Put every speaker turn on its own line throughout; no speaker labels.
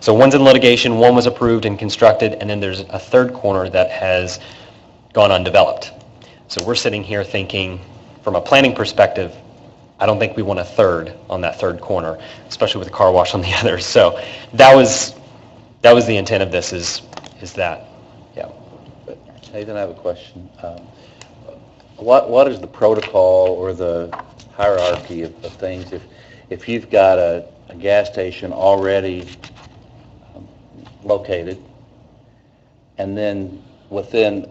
So one's in litigation, one was approved and constructed, and then there's a third corner that has gone undeveloped. So we're sitting here thinking, from a planning perspective, I don't think we want a third on that third corner, especially with a car wash on the other. So that was, that was the intent of this, is, is that, yeah.
Nathan, I have a question. Um, What, what is the protocol or the hierarchy of of things if, if you've got a, a gas station already um, located, and then within,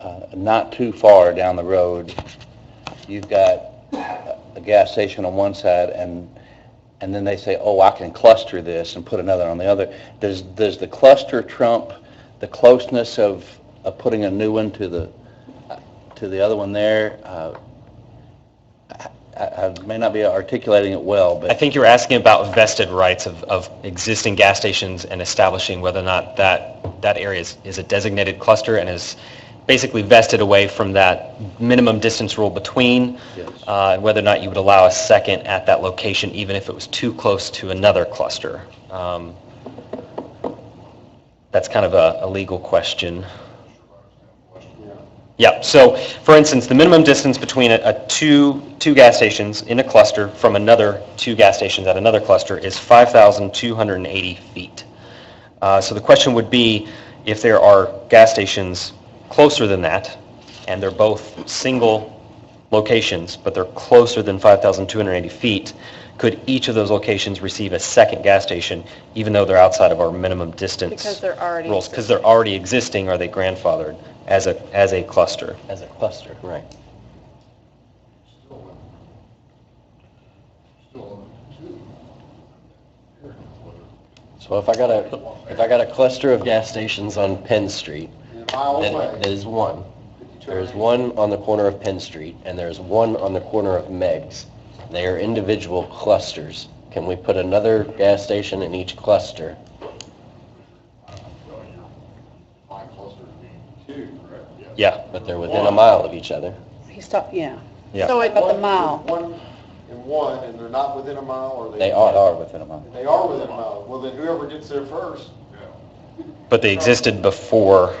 uh, not too far down the road, you've got a a gas station on one side, and, and then they say, oh, I can cluster this and put another on the other. Does, does the cluster trump the closeness of, of putting a new one to the, to the other one there? Uh, I, I I may not be articulating it well,
I
but
think you're asking about vested rights of, of existing gas stations and establishing whether or not that, that area is, is a designated cluster and is basically vested away from that minimum distance rule between,
Yes.
uh, and whether or not you would allow a second at that location, even if it was too close to another cluster. Um, That's kind of a, a legal question. Yeah, so, for instance, the minimum distance between a, a two, two gas stations in a cluster from another two gas stations at another cluster is 5,280 feet. Uh, So the question would be, if there are gas stations closer than that, and they're both single locations, but they're closer than 5,280 feet, could each of those locations receive a second gas station, even though they're outside of our minimum distance?
Because they're already
Rules, because they're already existing, are they grandfathered as a, as a cluster?
as a cluster. Right.
So if I got a, if I got a cluster of gas stations on Penn Street, then there's one. There's one on the corner of Penn Street, and there's one on the corner of Meg's. They are individual clusters. Can we put another gas station in each cluster?
My cluster being two, correct? Yes.
Yeah,
But they're within a mile of each other.
He's talking, yeah.
Yeah.
So it- But the mile,
One and one, and they're not within a mile, or they?
They are, are within a mile.
They are within a mile. Well, then whoever gets there first.
but they existed before.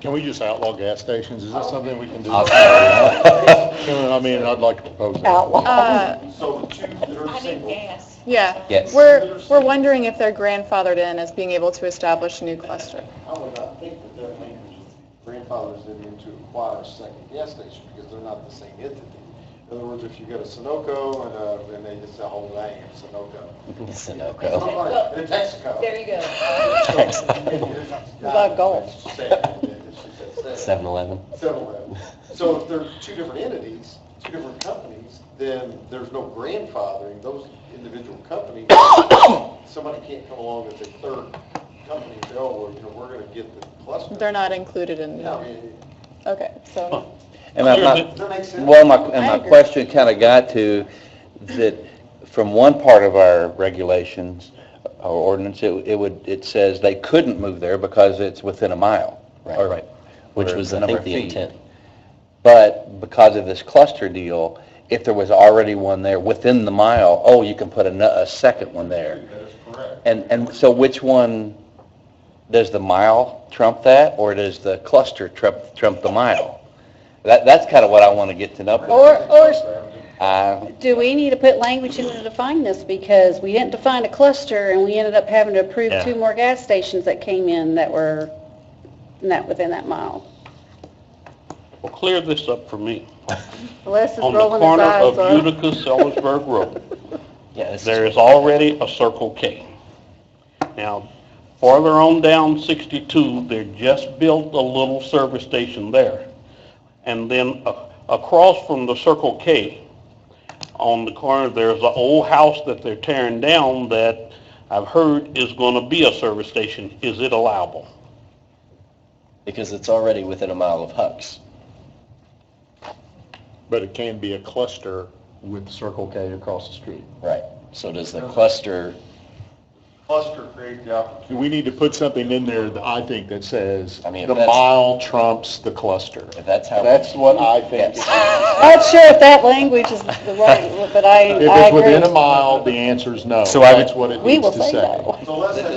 Can we just outlaw gas stations? Is that something we can do? Can- I mean, I'd like to propose that.
uh,
So the two that are single.
yeah.
Yes.
We're, we're wondering if they're grandfathered in as being able to establish a new cluster.
I would not think that that language is grandfathers them in to acquire a second gas station because they're not the same entity. In other words, if you go to Sunoco and, uh, and they just say, hold on, Sunoco.
Sunoco.
Right, and Texaco.
There you go.
The Gulf.
She said- she said seven.
7-Eleven.
Seven of them. So if they're two different entities, two different companies, then there's no grandfathering, those individual companies, somebody can't come along as a third company and say, oh, well, you know, we're going to get the cluster.
They're not included in,
I mean,
okay, so,
And I'm not-
Does that make sense?
Well, my, and
I
my
agree.
question kind of got to that from one part of our regulations or ordinance, it, it would, it says they couldn't move there because it's within a mile. or-
Right. Which
or
was,
the
I think,
number of
the
feet.
intent.
But because of this cluster deal, if there was already one there within the mile, oh, you can put a, no- a second one there.
That is correct.
And, and so which one, does the mile trump that, or does the cluster trump, trump the mile? That, that's kind of what I want to get to know.
Or, or
Uh,
do we need to put language in to define this? Because we didn't define a cluster, and we ended up having to approve
Yeah.
two more gas stations that came in that were not within that mile.
Well, clear this up for me.
Les is
On the
rolling his
corner
eyes.
of
up.
Utica Sellersburg Road,
Yeah, this is-
there is already a Circle K. Now, farther on down 62, they just built a little service station there. And then a- across from the Circle K, on the corner, there's an old house that they're tearing down that I've heard is going to be a service station. Is it allowable?
because it's already within a mile of Huck's.
But it can be a cluster with Circle K across the street.
Right. So does the cluster
Cluster creates the opportunity.
We need to put something in there that I think that says,
I mean, if
the
that's-
mile trumps the cluster.
If that's how.
That's what I think.
Yes.
Not sure if that language is the right, but I, I
If
agree.
it's within a mile, the answer is no.
So I would-
That's what it
We
needs
will
to
say
say.
no.
So let's say